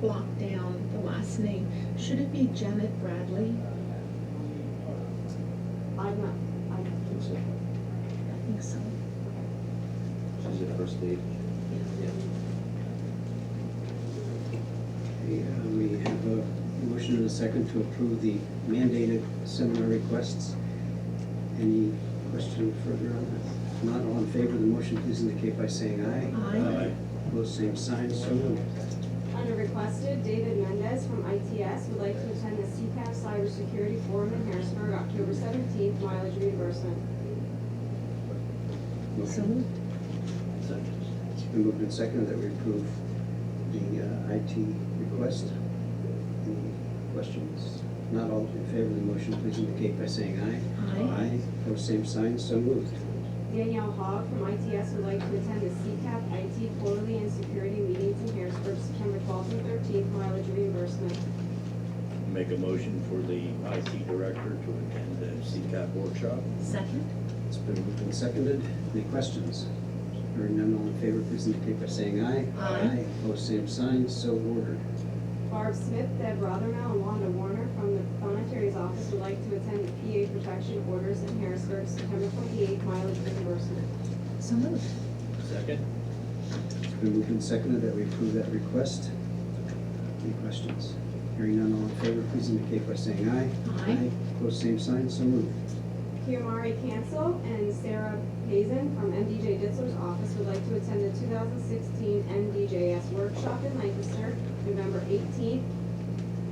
block down the last name. Should it be Janet Bradley? I'm not, I don't think so. I think so. She's a first lady. Okay, uh, We have a motion and a second to approve the mandated seminar requests. Any question further on that? If Not all in favor of the motion, please indicate by saying aye. Aye. Opposed, same sign, so moved. Under requested, David Mendez from ITS would like to attend the CCAP Cybersecurity Forum in Harrisburg, October seventeenth, mileage reimbursement. So moved. It's been moved and seconded that we approve the uh, IT request. Any questions? If Not all in favor of the motion, please indicate by saying aye. Aye. Opposed, same sign, so moved. Danielle Hogg from ITS would like to attend the CCAP IT Quarterly and Security Meetings in Harrisburg, September twelfth and thirteenth, mileage reimbursement. Make a motion for the IT director to attend the CCAP workshop. Second? It's been moved and seconded. Any questions? Hearing none, all in favor, please indicate by saying aye. Aye. Opposed, same sign, so ordered. Barb Smith, Deb Rothermel, and Wanda Warner from the Planetary's Office would like to attend the PA Protection Orders in Harrisburg, September twenty-eighth, mileage reimbursement. So moved. Second? It's been moved and seconded that we approve that request. Any questions? Hearing none, all in favor, please indicate by saying aye. Aye. Opposed, same sign, so moved. Kiamari Cancel and Sarah Hazen from MDJ Ditzler's office would like to attend the 2016 MDJS workshop in Lancaster, November 18th.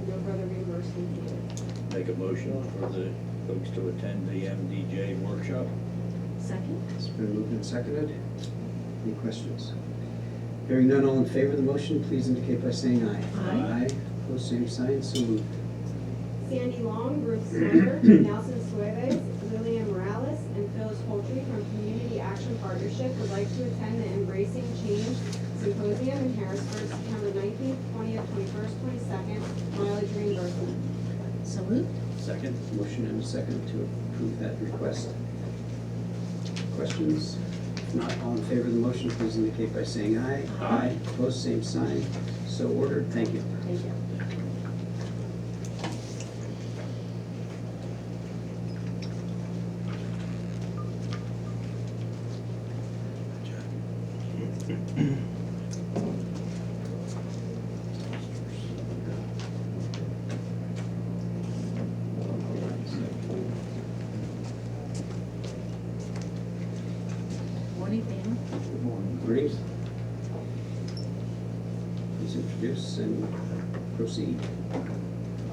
No further reimbursement needed. Make a motion for the folks to attend the MDJ workshop. Second? It's been moved and seconded. Any questions? Hearing none, all in favor of the motion, please indicate by saying aye. Aye. Opposed, same sign, so moved. Sandy Long, Ruth Snyder, Nelson Suarez, Lillian Morales, and Phyllis Poultry from Community Action Partnership would like to attend the Embracing Change Symposium in Harrisburg, September 19th, 20th, 21st, 22nd, mileage reimbursement. So moved. Second? Motion and a second to approve that request. Questions? If not, all in favor of the motion, please indicate by saying aye. Aye. Opposed, same sign. So ordered, thank you. Thank you. Morning, Dan. Good morning. Uh, Great. Please introduce and proceed.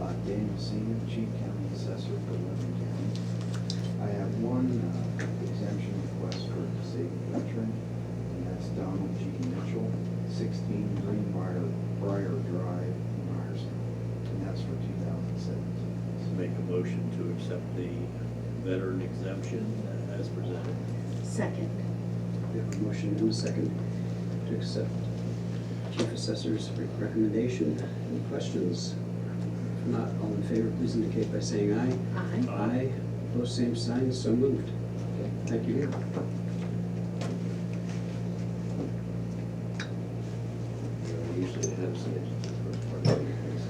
Uh, Daniel Senior, Chief County Assessor for Lebanon County. I have one uh, exemption request for a disabled veteran, and that's Donald G. Mitchell, sixteen Greenbrier, Briar Drive, Myerston, and that's for two thousand seventeen. Make a motion to accept the veteran exemption as presented. Second. We have a motion and a second to accept Chief Assessor's recommendation. Any questions? If not, all in favor, please indicate by saying aye. Aye. Aye, opposed, same sign, so moved. Thank you. We Usually have some, first part of your case,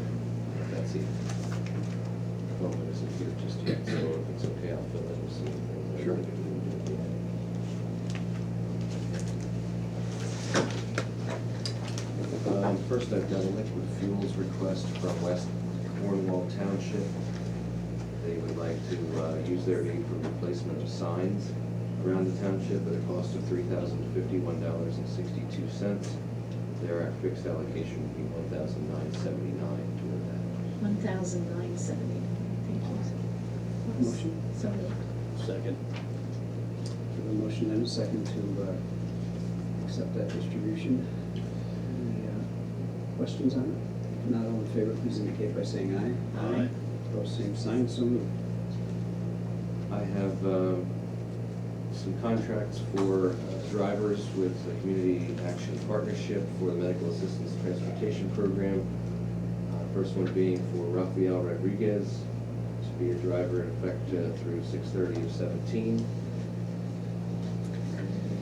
but that's it. Well, it isn't here just yet, so if it's okay, I'll fill in some. of the- Sure. Um, First, I've got a liquid fuels request from West Cornwall Township. They would like to uh, use their aid for replacement of signs around the township at a cost of three thousand fifty-one dollars and sixty-two cents. Their fixed allocation would be one thousand nine seventy-nine toward that. One thousand nine seventy. Thank you. Motion? So moved. Second? We have a motion and a second to uh, accept that distribution. Any uh, questions on it? If not, all in favor, please indicate by saying aye. Aye. Opposed, same sign, so moved. I have uh, some contracts for uh, drivers with the Community Action Partnership for the Medical Assistance Transportation Program. Uh, First one being for Rafael Rodriguez to be a driver in effect uh, through six thirty of seventeen.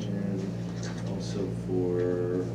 And also for